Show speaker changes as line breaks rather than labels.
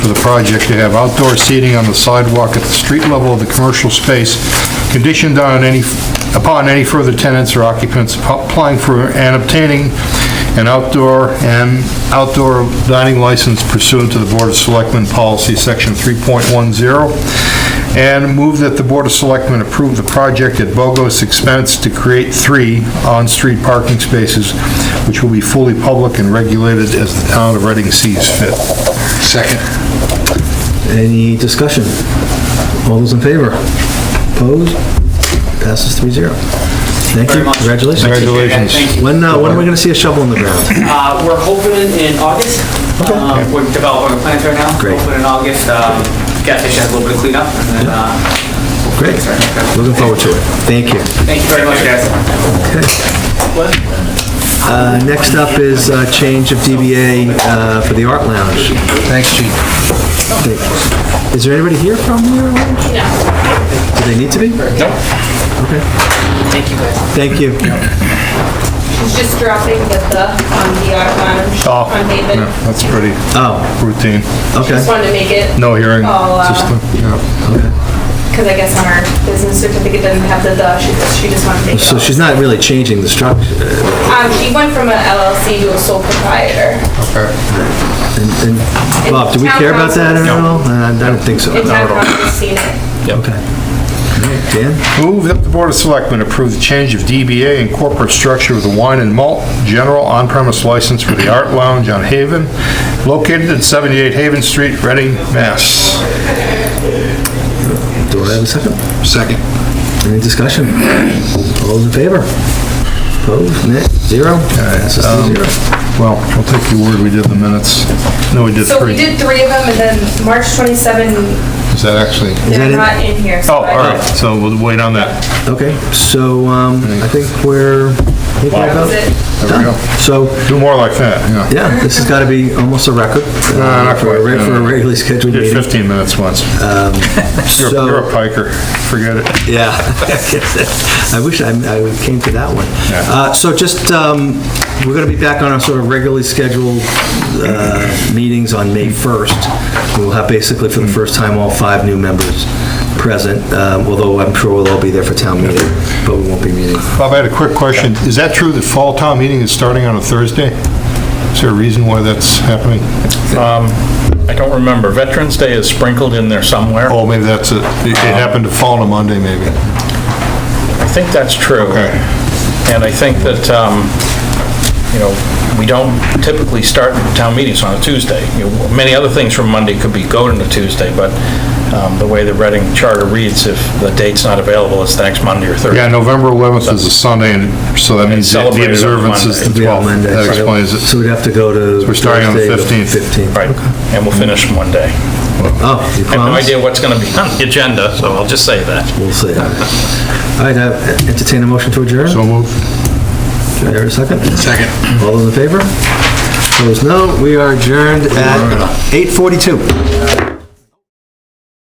project to have outdoor seating on the sidewalk at the street level of the commercial space, conditioned on any, upon any further tenants or occupants applying for and obtaining an outdoor and outdoor dining license pursuant to the Board of Selectmen Policy Section 3.10, and move that the Board of Selectmen approve the project at Bogo's expense to create three on-street parking spaces, which will be fully public and regulated as the town of Reading sees fit. Second.
Any discussion? All those in favor? Opposed? Passes three zero. Thank you,
Very much.
congratulations.
Congratulations.
Thank you.
When, uh, when are we gonna see a shovel in the ground?
Uh, We're hoping in August. Um, We're developing our plans right now.
Great.
Hoping in August. um, Gas station has a little bit of cleanup and then... uh, we'll
Great.
fix it.
Looking forward to it. Thank you.
Thank you very much, guys.
Uh, next up is, uh, change of DBA, uh, for the Art Lounge.
Thanks, Gene.
Is there anybody here from the Art Lounge? No. Do they need to be? No. Okay. Thank you, guys. Thank you.
He's just dropping the the on the art lounge
Oh,
on David.
yeah, that's pretty
Oh,
routine.
Just
okay.
wanted to make it,
No hearing.
Oh, uh,
Just, yeah.
because I guess on her business certificate doesn't have the the, she just, she just wanted to make it.
So she's not really changing the structure,
Um, she went from an LLC to a sole proprietor.
Okay.
And Bob, do we care about that at all? Uh, I don't think so.
In town, I've seen it.
Okay. All right, Dan,
Move that the Board of Selectmen approve the change of DBA and corporate structure of the Wine and Malt General on-premise license for the Art Lounge on Haven, located at 78 Haven Street, Reading, Mass.
do I have a second?
Second.
Any discussion? All those in favor? Opposed? Nay? Zero? Passes
um,
three zero.
Well, I'll take your word, we did the minutes. No, we did
So we
three.
did three of them, and then March 27,
Is that actually?
they're
that it?
not in here.
Oh,
so
all
I-
right, so we'll wait on that.
Okay, so um, I think we're, I think we're
That was it.
about
There we
done.
go.
So,
Do more like that, yeah.
yeah, this has got to be almost a record. uh,
No, not
For a
quite,
re- for a
no.
regularly scheduled
We Did
meeting.
15 minutes once. You're
So-
you're a piker, forget it.
Yeah, I wish I I came to that one.
Yeah.
Uh, So just, um, we're going to be back on our sort of regularly scheduled uh, meetings on May 1st. We'll have basically for the first time all five new members present, um, although I'm sure we'll all be there for town meeting, but we won't be meeting.
Bob, I had a quick question. Is that true that fall town meeting is starting on a Thursday? Is there a reason why that's happening?
I don't remember. Veterans Day is sprinkled in there somewhere.
Oh, maybe that's, it It happened to fall on a Monday, maybe.
I think that's true.
Okay.
And I think that, um, you know, we don't typically start town meetings on a Tuesday. You know, Many other things from Monday could be go to Tuesday, but um, the way the Reading Charter reads, if the date's not available, it's the next Monday or Thursday.
Yeah, November 11th is a Sunday, and so that means that the
celebrated on
observance is the
We
Monday.
have
12th.
Monday,
That
so-
explains
So
it.
we'd have to go to.
we're starting on the
Thursday,
15th.
Right, and we'll finish in one day.
Oh, you
I have no
promise?
idea what's going to be on the agenda, so I'll just say that.
We'll see. All right, I entertain a motion to adjourn?
So move.
Do I hear a second? Second. All those in favor? Opposed, no. We are adjourned at 8:42.